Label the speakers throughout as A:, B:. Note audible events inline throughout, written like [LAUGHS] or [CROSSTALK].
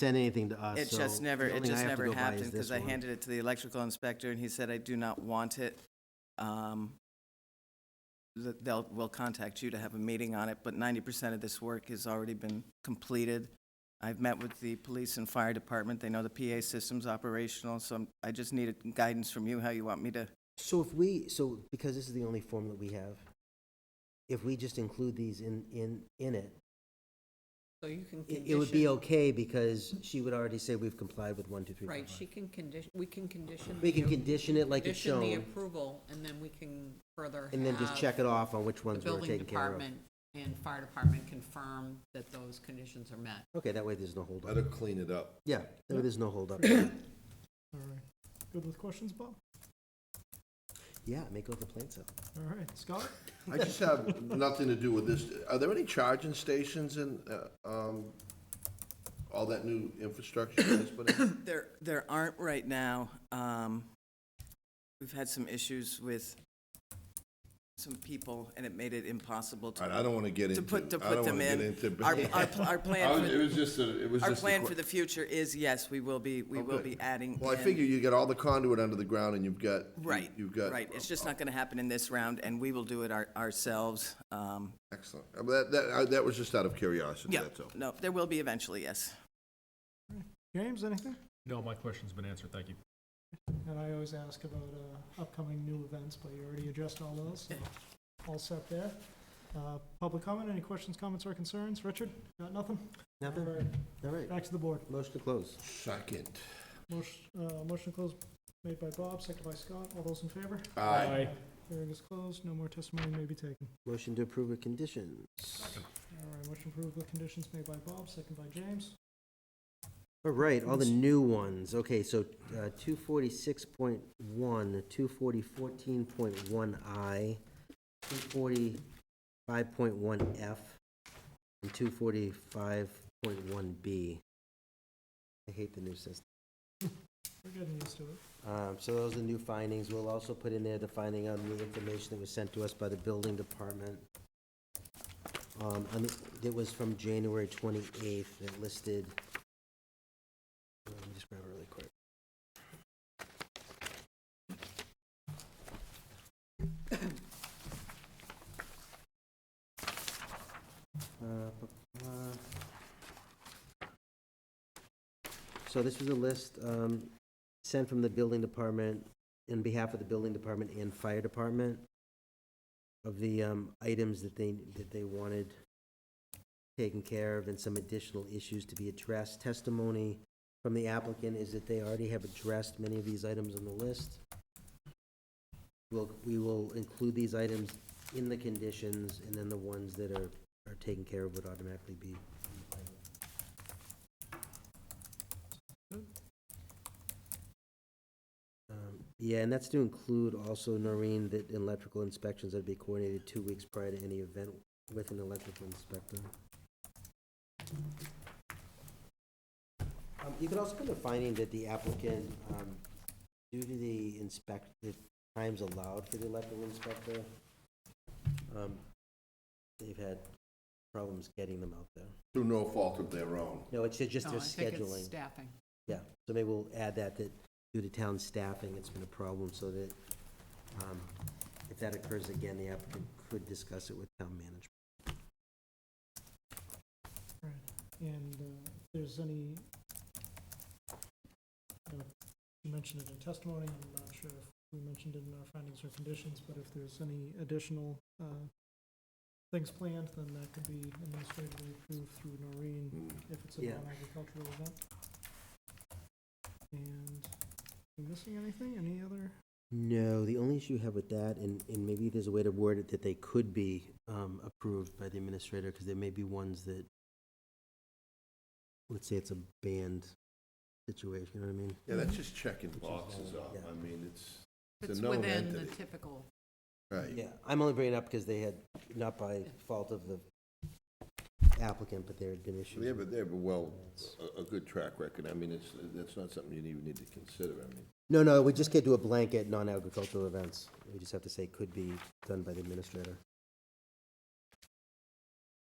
A: sent anything to us.
B: It
A: Uh, so
B: just never,
A: the
B: it
A: only I have
B: just
A: to
B: never
A: go by is
B: happened,
A: this
B: because I
A: one.
B: handed it to the electrical inspector, and he said, I do not want it. Um, th- They'll, we'll contact you to have a meeting on it, but ninety percent of this work has already been completed. I've met with the police and fire department, they know the PA system's operational, so I'm- I just needed guidance from you, how you want me to,
A: So if we, so because this is the only form that we have, if we just include these in, in, in it,
C: So you can
A: it,
C: condition.
A: it would be okay because she would already say we've complied with one, two, three. four,
C: Right,
A: five."
C: she can condition, we can condition.
A: We can
C: the-
A: condition it like it's
C: Condition the
A: shown
C: approval, and then we can further have.
A: and then just check it off on which
C: The
A: ones we're
C: building
A: taking care of.
C: department and fire department confirm that those conditions are met.
A: Okay, that way there's no
D: Let
A: holdup.
D: her clean it up.
A: Yeah, that way there's no holdup.
E: All right. Good with questions, Bob?
A: Yeah, make over the plants up.
E: All right, Scott?
D: I just have [LAUGHS] nothing to do with this. Are there any charging stations in, uh, um, all that new infrastructure that's put in?
B: [COUGHS] There, there aren't right now. Um, We've had some issues with some people, and it made it impossible
D: All
B: to.
D: right, I don't want to get
B: To
D: into,
B: put, to
D: I
B: put
D: don't
B: them
D: want to get
B: in.
D: into.
B: Our, our,
D: [LAUGHS]
B: our
D: I
B: plan,
D: was- It
B: for-
D: was just, a- it was
B: our
D: just a
B: plan
D: que-
B: for the future is, yes, we will be, we
D: Oh,
B: will
D: good.
B: be adding.
D: Well, I
B: in-
D: figure you got all the conduit under the ground and you've got. you-
B: Right,
D: You've got.
B: right. It's just not going to happen in this round, and we will do it our- ourselves. Um,
D: Excellent. Uh, That, that, I- that was just out of curiosity,
B: Yeah,
D: that's all.
B: no, there will be eventually, yes.
E: James, anything?
F: No, my question's been answered, thank you.
E: And I always ask about uh, upcoming new events, but you already addressed all those, so all set there. Uh, Public comment, any questions, comments, or concerns? Richard, got nothing? All
A: Nothing?
E: right,
A: All right.
E: back to the board.
A: Motion to close.
D: Second.
E: Motion uh, motion to close made by Bob, seconded by Scott. All those in favor?
D: Aye.
E: Hearing is closed, no more testimony may be taken.
A: Motion to approve with conditions.
E: All right, motion approved with conditions made by Bob, seconded by James.
A: All Oh, right, all the new ones. Okay, so uh, two forty-six point one, two forty fourteen point one I, two forty-five point one F, and two forty-five point one B. I hate the new system.
E: We're getting used to it.
A: Um, So those are the new findings. We'll also put in there the finding on the information that was sent to us by the building department. Um, and it- It was from January 28th that listed, let me just grab it really quick. [COUGHS] Uh, bu- bu- So this was a list um, sent from the building department, in behalf of the building department and fire department, of the um, items that they, that they wanted taken care of and some additional issues to be addressed. Testimony from the applicant is that they already have addressed many of these items on the list. We'll, we will include these items in the conditions, and then the ones that are, are taken care of would automatically be. Um, Yeah, and that's to include also, Noreen, that electrical inspections that'd be coordinated two weeks prior to any event with an electrical inspector. Um, You could also put a finding that the applicant, um, due to the inspect, the times allowed for the electrical inspector, um, they've had problems getting them out there.
D: Through no fault of their own.
A: No, it's just
C: No,
A: their
C: Oh, I think it's
A: scheduling.
C: Staffing.
A: Yeah, so maybe we'll add that, that due to town staffing, it's been a problem, so that um, if that occurs again, the applicant could discuss it with town management.
E: Right, and uh, if there's any, I know you mentioned it in testimony, I'm not sure if we mentioned it in our findings or conditions, but if there's any additional uh, things planned, then that could be administratively approved through Noreen
D: Mm.
E: if it's a
A: Yeah.
E: non-agricultural event. And, am I missing anything? Any other?
A: No, the only issue you have with that, and, and maybe there's a way to word it that they could be um, approved by the administrator, because there may be ones that, let's say it's a banned situation, you know what I mean?
D: Yeah,
B: Mm-hmm.
D: that's just checking
A: is
D: boxes
A: all,
D: up.
A: yeah.
D: I mean, it's, it's
C: It's
D: a known
C: within the
D: entity.
C: typical,
D: Right.
A: Yeah, I'm only bringing it up because they had, not by fault of the applicant, but there had been issues.
D: They have, a- they have a well, a, a good track record. I mean, it's, that's not something you even need to consider, I mean.
A: No, no, we just can't do a blanket non-agricultural events. We just have to say could be done by the administrator.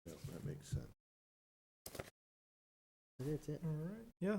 D: Yeah, that makes sense.
A: All think that's it.
E: All right, yeah,